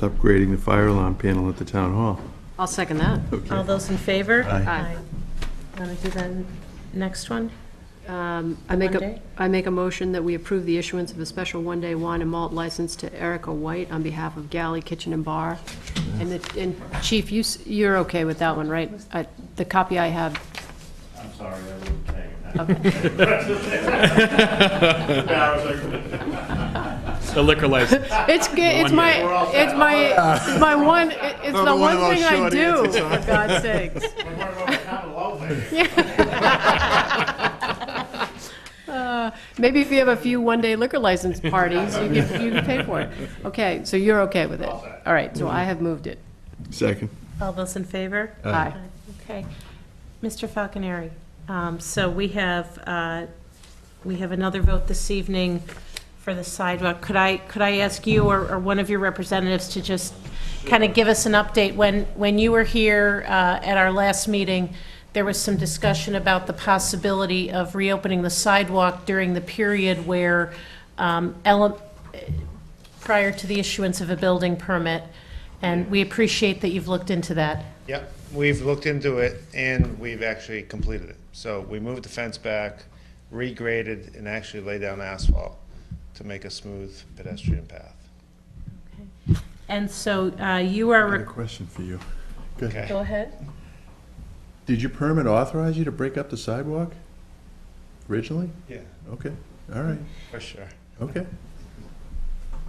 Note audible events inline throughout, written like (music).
upgrading the fire alarm panel at the town hall. I'll second that. Okay. All those in favor? Aye. Want to do the n- next one? Um, I make a, Monday? I make a motion that we approve the issuance of a special one-day wine and malt license to Erica White on behalf of Galley Kitchen and Bar. And the, and Chief, you, s- you're okay with that one, right? I- The copy I have, I'm sorry, I wouldn't take okay. it. The liquor license. It's, g- it's my, it's my, it's my one, it's the Another one one of those thing I short do, answers, for (laughs) God's sakes. (laughs) Uh, Maybe if you have a few one-day liquor license parties, you can, you can pay for it. Okay, so you're okay with it? All right, so I have moved it. Second. All those in favor? Aye. Okay. Mr. Falconeri, um, so we have, uh, we have another vote this evening for the sidewalk. Could I, could I ask you or or one of your representatives to just kind of give us an update? When, when you were here uh, at our last meeting, there was some discussion about the possibility of reopening the sidewalk during the period where um, ele- prior to the issuance of a building permit, and we appreciate that you've looked into that. Yep, we've looked into it and we've actually completed it. So we moved the fence back, regraded, and actually laid down asphalt to make a smooth pedestrian path. And so uh, you are, I got a re- question for you. Okay, go ahead. Did your permit authorize you to break up the sidewalk originally? yeah, Okay, all right, for sure. okay.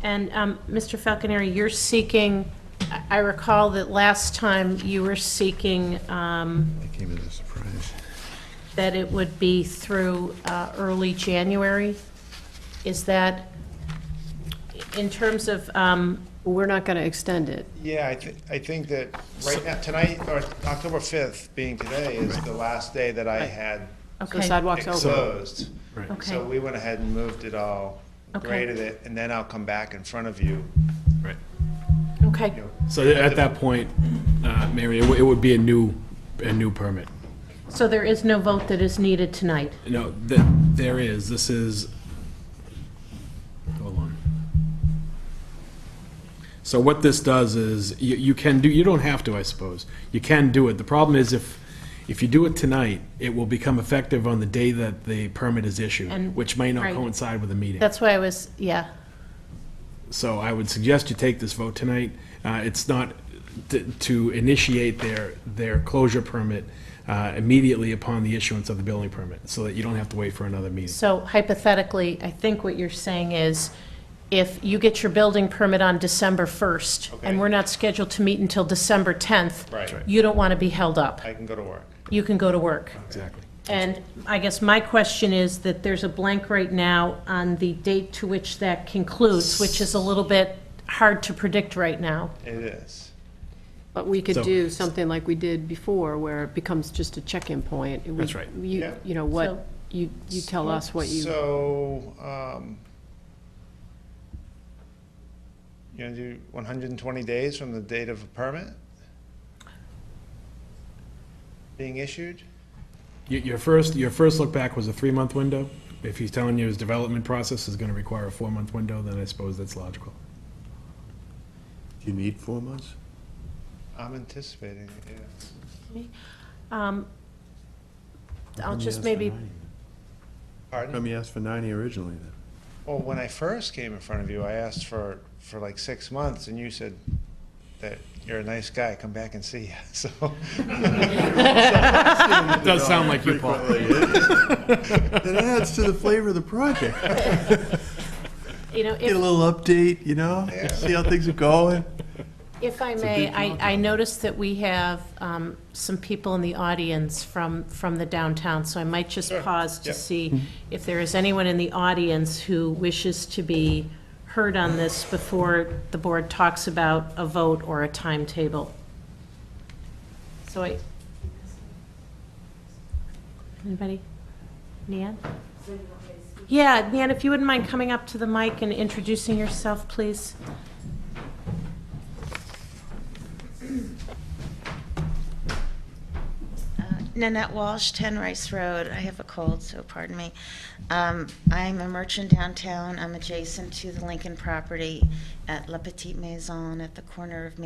And um, Mr. Falconeri, you're seeking, I- I recall that last time you were seeking um, That came as a surprise. that it would be through uh, early January. Is that, in terms of, um, We're not going to extend it. Yeah, I thi, I think that right now, tonight, or October fifth being today is the last day that I had So okay, sidewalk's over. exposed. okay, So we went ahead and moved it all, Okay. graded it, and then I'll come back in front of you. Right. okay. you know, So at that point, uh, Mary, it would- it would be a new, a new permit. So there is no vote that is needed tonight. No, th- there is, this is, hold on. So what this does is, you, you can do, you don't have to, I suppose. You can do it. The problem is if, if you do it tonight, it will become effective on the day that the permit is issued, And- which may not right. coincide with the meeting. That's why I was, yeah. So I would suggest you take this vote tonight. Uh, It's not t- to initiate their, their closure permit uh, immediately upon the issuance of the building permit, so that you don't have to wait for another meeting. So hypothetically, I think what you're saying is, if you get your building permit on December 1st, Okay. and we're not scheduled to meet until December 10th. Right. Right. You don't want to be held up. I can go to work. You can go to work. Exactly. And I guess my question is that there's a blank right now on the date to which that concludes, which is a little bit hard to predict right now. It is. But we could So- do something like we did before, where it becomes just a check-in point. We- That's right. You, Yeah. you know, So- what, you, you tell us what you, So, um, you gonna do one hundred and twenty days from the date of a permit being issued? Y- Your first, your first look back was a three-month window. If he's telling you his development process is going to require a four-month window, then I suppose that's logical. Do you need four months? I'm anticipating, it, yeah. Um, I'll Come you just asked for maybe, 90? Pardon? Come you asked for ninety originally then? Well, when I first came in front of you, I asked for, for like six months, and you said that you're a nice guy, come back and see you, (laughs) so. (laughs) It does sound like you, Paul. It adds to the flavor of the project. (laughs) you know, if... Get a little update, you know, see how things are going. If I may, I, I noticed that we have um, some people in the audience from, from the downtown, so I might just pause to yeah. see if there is anyone in the audience who wishes to be heard on this before the board talks about a vote or a timetable. So I, anybody? Nan? Yeah, Nan, if you wouldn't mind coming up to the mic and introducing yourself, please. Uh, Nanette Walsh, 10 Rice Road. I have a cold, so pardon me. Um, I'm a merchant downtown. I'm adjacent to the Lincoln property at La Petite Maison at the corner of